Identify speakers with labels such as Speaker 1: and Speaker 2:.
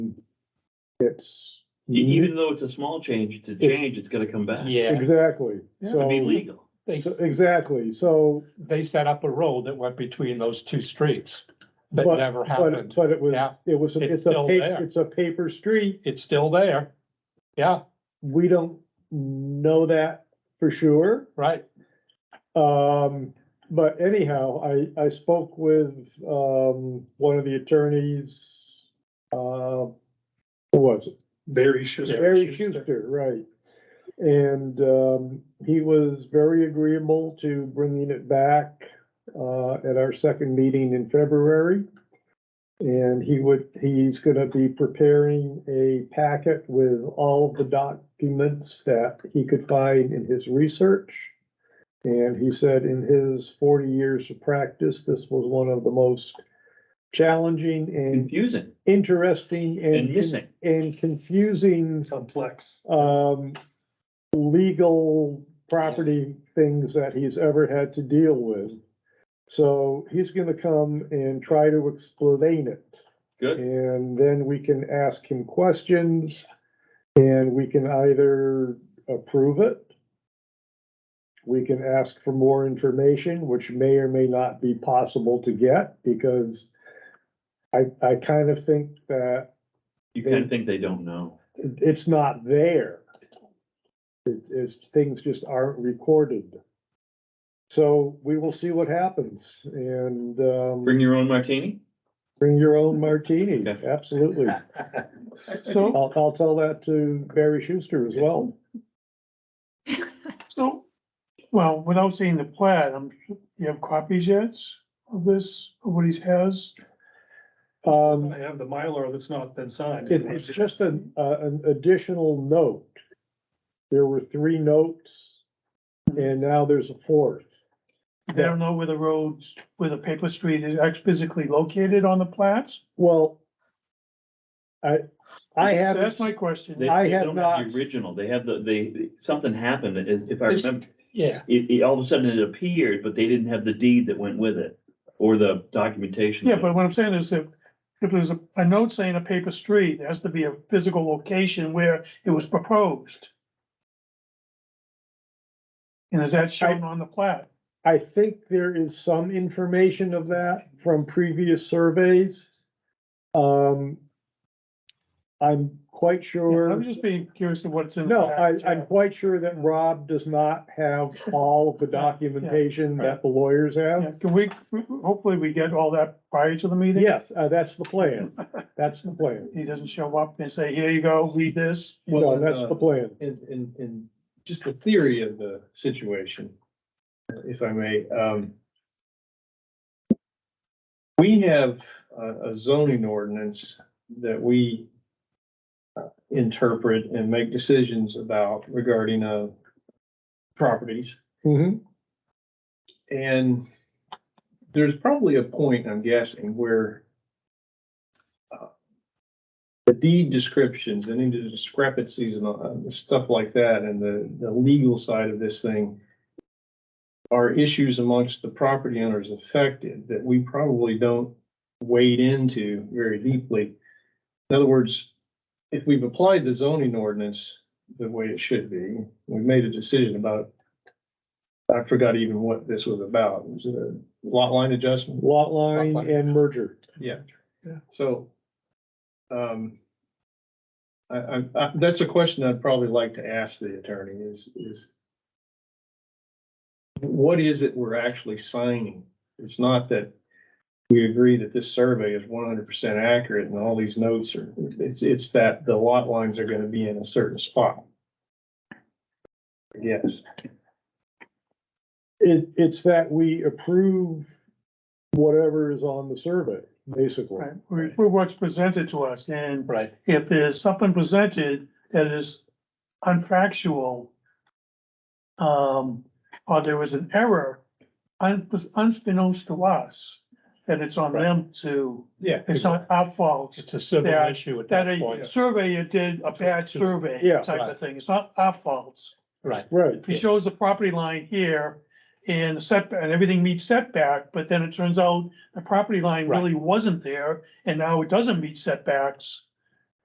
Speaker 1: It's.
Speaker 2: E-
Speaker 3: E Even though it's a small change, it's a change, it's gonna come back.
Speaker 2: Yeah,
Speaker 1: Exactly,
Speaker 4: Yeah.
Speaker 3: It'd be
Speaker 1: so,
Speaker 3: legal.
Speaker 2: they,
Speaker 1: so- exactly, so,
Speaker 2: they set up a road that went between those two streets that
Speaker 1: But-
Speaker 2: never
Speaker 1: but,
Speaker 2: happened.
Speaker 1: but it was,
Speaker 2: Yeah.
Speaker 1: it was,
Speaker 2: It's
Speaker 1: it's a,
Speaker 2: still
Speaker 1: pa-
Speaker 2: there.
Speaker 1: it's a paper street,
Speaker 2: It's still there. Yeah,
Speaker 1: we don't know that for sure.
Speaker 2: right.
Speaker 1: Um, but anyhow, I, I spoke with, um, one of the attorneys, uh, who was it?
Speaker 4: Barry Schuster.
Speaker 1: Barry Schuster, right. And, um, he was very agreeable to bringing it back, uh, at our second meeting in February. And he would, he's gonna be preparing a packet with all of the documents that he could find in his research. And he said in his forty years of practice, this was one of the most challenging and
Speaker 3: Confusing
Speaker 1: interesting and.
Speaker 3: and missing.
Speaker 1: And confusing
Speaker 4: Complex.
Speaker 1: um, legal property things that he's ever had to deal with. So he's gonna come and try to explain it,
Speaker 3: Good.
Speaker 1: and then we can ask him questions, and we can either approve it. We can ask for more information, which may or may not be possible to get, because I, I kind of think that
Speaker 3: You kinda think they don't know.
Speaker 1: it- it's not there. It is, things just aren't recorded. So we will see what happens and um,
Speaker 3: Bring your own martini?
Speaker 1: bring your own martini,
Speaker 3: Okay.
Speaker 1: absolutely.
Speaker 4: So,
Speaker 1: I'll, I'll tell that to Barry Schuster as well.
Speaker 4: so, well, without seeing the plat, I'm, sure- you have copies yet of this, of what he has?
Speaker 1: Um,
Speaker 4: have the Mylar that's not been signed.
Speaker 1: it- it's just an, uh, an additional note. There were three notes and now there's a fourth.
Speaker 4: They don't know where the roads, where the paper street is actually physically located on the plats?
Speaker 1: Well, I, I haven't.
Speaker 4: That's my question.
Speaker 3: They-
Speaker 1: I
Speaker 3: they
Speaker 1: have
Speaker 3: don't have
Speaker 1: not-
Speaker 3: The original, they have the, they, something happened, if if I
Speaker 2: This-
Speaker 3: remember,
Speaker 2: Yeah,
Speaker 3: it, it, all of a sudden it appeared, but they didn't have the deed that went with it. Or the documentation.
Speaker 4: Yeah,
Speaker 3: of it.
Speaker 4: but what I'm saying is if, if there's a, a note saying a paper street, there has to be a physical location where it was proposed. And is that shown on the plat?
Speaker 1: I think there is some information of that from previous surveys. Um, I'm quite
Speaker 4: Yeah, I'm
Speaker 1: sure,
Speaker 4: just being curious of what's in. the
Speaker 1: no, I,
Speaker 4: plat,
Speaker 1: I'm
Speaker 4: yeah.
Speaker 1: quite sure that Rob does not have all of the documentation that the lawyers
Speaker 4: Yeah,
Speaker 1: have.
Speaker 4: Can we, hopefully we get all that prior to the meeting?
Speaker 1: Yes, uh, that's the plan. That's the plan.
Speaker 4: He doesn't show up and say, here you go, read this.
Speaker 1: No, that's
Speaker 4: uh,
Speaker 1: the plan.
Speaker 5: in, in, in just the theory of the situation, if I may, um. We have a, a zoning ordinance that we uh, interpret and make decisions about regarding, uh, properties.
Speaker 1: Mhm.
Speaker 5: And there's probably a point, I'm guessing, where uh, the deed descriptions and any discrepancies and all- and stuff like that, and the, the legal side of this thing are issues amongst the property owners affected that we probably don't wade into very deeply. In other words, if we've applied the zoning ordinance the way it should be, we've made a decision about I forgot even what this was about. It was a lot line adjustment.
Speaker 1: Lot line and merger.
Speaker 5: Yeah.
Speaker 4: Yeah.
Speaker 5: So, um, I, I, I- that's a question I'd probably like to ask the attorney is, is what is it we're actually signing? It's not that we agree that this survey is one hundred percent accurate and all these notes are, it's, it's that the lot lines are gonna be in a certain spot. I guess.
Speaker 1: It, it's that we approve whatever is on the survey, basically.
Speaker 4: Right, we we what's presented to us, and
Speaker 2: right.
Speaker 4: if there's something presented that is unfactual, um, or there was an error, un- unbeknownst to us, then it's on them to,
Speaker 5: Yeah.
Speaker 4: it's not our fault.
Speaker 2: It's a civil
Speaker 4: Yeah,
Speaker 2: issue at
Speaker 4: That
Speaker 2: that point.
Speaker 4: a surveyor did a bad survey
Speaker 1: Yeah.
Speaker 4: type of thing, it's not our fault.
Speaker 2: Right.
Speaker 1: Right,
Speaker 4: If he shows the property line here and the setback, and everything meets setback, but then it turns out the property line
Speaker 2: Right.
Speaker 4: really wasn't there, and now it doesn't meet setbacks.